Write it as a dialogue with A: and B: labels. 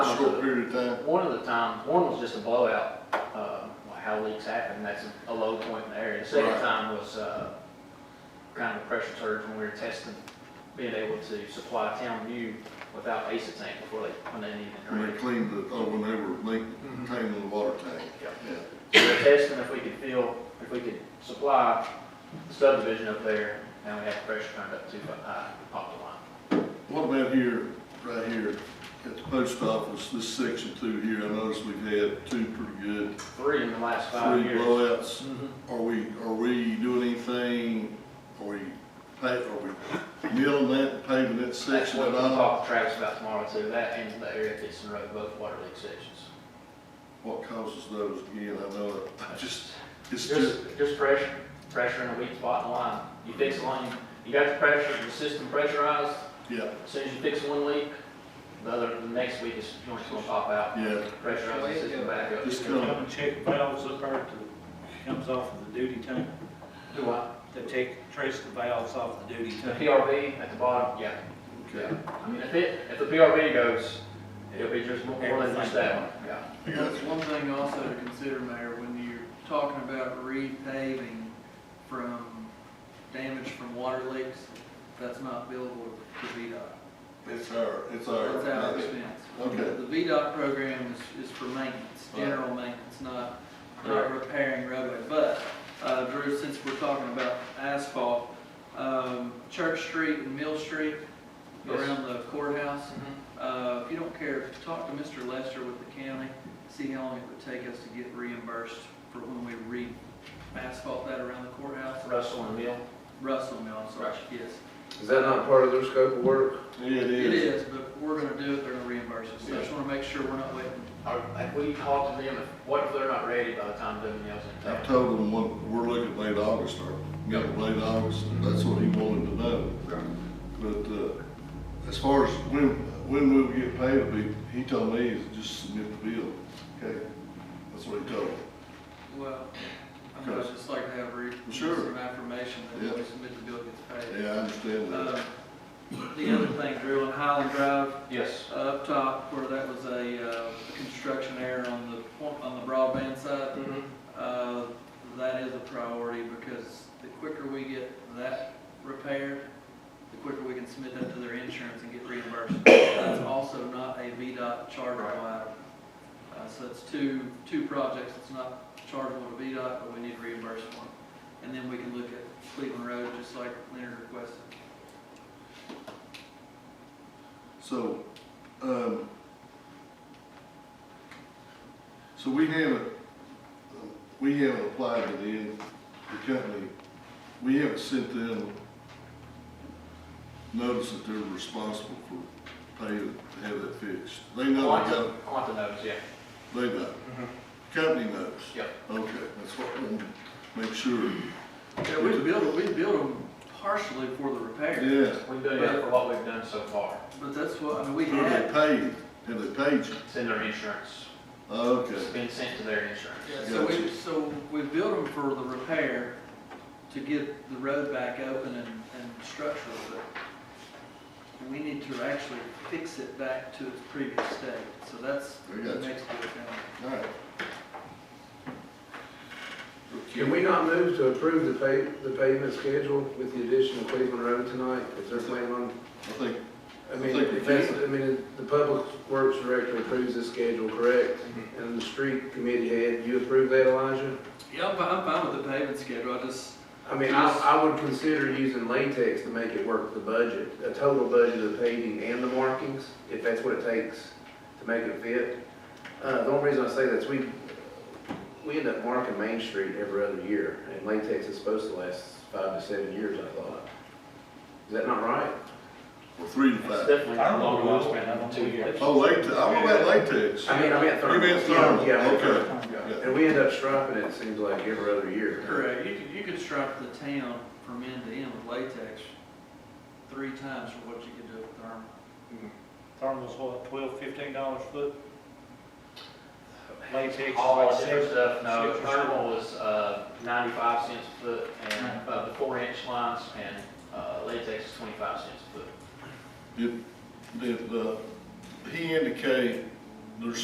A: short period of time.
B: One of the times, one was just a blowout, uh, like how leaks happen, that's a low point in the area. The second
A: Right.
B: time was, uh, kind of a pressure surge when we were testing, being able to supply town view without ACE tank before they, when they needed it.
A: When they
B: ready.
A: cleaned the, oh, when they were making,
B: Mhm.
A: cleaning the water tank,
B: Yeah.
A: yeah.
B: We were testing if we could fill, if we could supply the subdivision up there, and we had the pressure turned up too high, pop the line.
A: What about here, right here, at the post office, this section two here, I noticed we've had two pretty good,
B: Three in the last five
A: three
B: years.
A: blowouts.
B: Mhm.
A: Are we, are we doing anything, are we, pa- are we milling that, and paving that
B: That's
A: section
B: what
A: at
B: we'll
A: all?
B: talk to Travis about tomorrow too, that and the area at Dixon Road, both water leak sections.
A: What causes those again, I know, it. I just, it's just,
B: Just, just pressure, pressure in a weak spot in the line. You fix a line, you got the pressure, the system pressurized,
A: yeah,
B: as soon as you fix one leak, the other, the next week is, joint's gonna pop out,
A: yeah,
B: pressurize the system back up.
A: just
C: Come
A: kind of,
C: and check valves up there to, comes off of the duty tank,
B: Do what?
C: to take, trace the valves off the duty
B: The
C: tank.
B: PRV at the bottom, yeah.
A: okay.
B: I mean, if it, if the PRV goes, it'll be just more than just that one, yeah.
D: That's one thing also to consider, Mayor, when you're talking about repaving from damage from water leaks, that's not billable to VDOT.
A: It's our, it's
D: That's our
A: our,
D: expense.
A: Okay.
D: The VDOT program is, is for maintenance, general maintenance, not, not repairing roadway. But, uh, Drew, since we're talking about asphalt, um, Church Street and Mill Street
B: Yes.
D: around the courthouse,
B: Mm-hmm.
D: Uh, If you don't care, talk to Mr. Lester with the county, see how long it would take us to get reimbursed for when we re-asphalt that around the courthouse.
B: Russell and Mill,
D: Russell Mill, I'm sorry, yes.
E: Is that not part of their scope of work?
A: it is.
D: It is, but we're gonna do it, they're gonna reimburse us. So I just wanna make sure we're not waiting.
B: are, have we talked to them, if- what if they're not ready by the time Doug Mill's in
A: I've
B: town?
A: told him, what- we're looking late August, or, you know, late August, and that's what he wanted to know. But, uh, as far as when, when we'll get paid, we- he told me is just submit the bill, okay? That's what he told me.
D: Well, I mean, I'd just like to have re-
A: Sure.
D: some affirmation that when
A: Yeah.
D: we submit the bill, it gets paid.
A: Yeah, I understand that.
D: Uh, The other thing, Drew, on Highland Drive,
B: Yes,
D: uh, up top where that was a uh, construction error on the, point- on the broadband side,
A: Mm-hmm.
D: uh, that is a priority because the quicker we get that repaired, the quicker we can submit that to their insurance and get reimbursed. That's also not a VDOT chargeable item. Uh, So it's two, two projects, it's not chargeable to VDOT, but we need reimbursement. And then we can look at Cleveland Road, just like Leonard requested.
A: So, um, so we haven't, we haven't applied to the, the company, we haven't sent them notice that they're responsible for paying, to have that fixed. They
B: I
A: know,
B: want
A: they
B: to,
A: know,
B: I want to notice, yeah,
A: they know, company knows.
B: Yep.
A: Okay, that's what, we want to make sure,
D: Yeah, we built, we built them partially for the repair.
A: yeah,
B: we've done it for what we've done so far,
D: But that's what, I mean, we
A: who they
D: had,
A: paid, have they paid you? Oh,
B: send their insurance,
A: Okay,
B: it's been sent to their insurance.
D: yeah, so we, so we built them for the repair to get the road back open and, and structural, but we need to actually fix it back to its previous state, so that's
A: I
D: the
A: got you.
D: next bit down.
A: all right.
E: Can we not move to approve the pay, the payment schedule with the addition of Cleveland Road tonight? Is there plan on,
A: I think,
E: I mean,
A: I think we
E: if that's, I mean, the Public Works Director approves this schedule, correct? And the street committee head, you approve that, Elijah?
D: Yeah, I'm, fi- I'm fine with the paving schedule, I just,
E: I mean, I, I would consider using latex to make it work with the budget, a total budget of paving and the markings, if that's what it takes to make it fit. Uh, the only reason I say that's we, we end up marking Main Street every other year, and latex is supposed to last five to seven years, I thought. Is that not right?
A: well, three to
B: It's
A: five.
B: definitely
C: I don't know.
B: longer lifespan, I don't two years.
A: Oh, latex, I'm about latex.
E: I mean, I meant thermal.
A: You meant thermal,
E: Yeah, I meant
A: okay.
E: thermal.
A: Yeah.
E: And we end up striping it, it seems like, every other year.
D: correct, you could, you could stripe the town from end to end with latex three times from what you could do with thermal.
C: Thermal's what, twelve, fifteen dollars a foot? Latex is
B: All
C: like
B: the Oh, different
C: six.
B: stuff, no,
C: six or
B: thermal was, uh, ninety-five cents a foot, and, uh, the four-inch lines, and, uh, latex is twenty-five cents a foot.
A: Did, did, uh, he indicate there's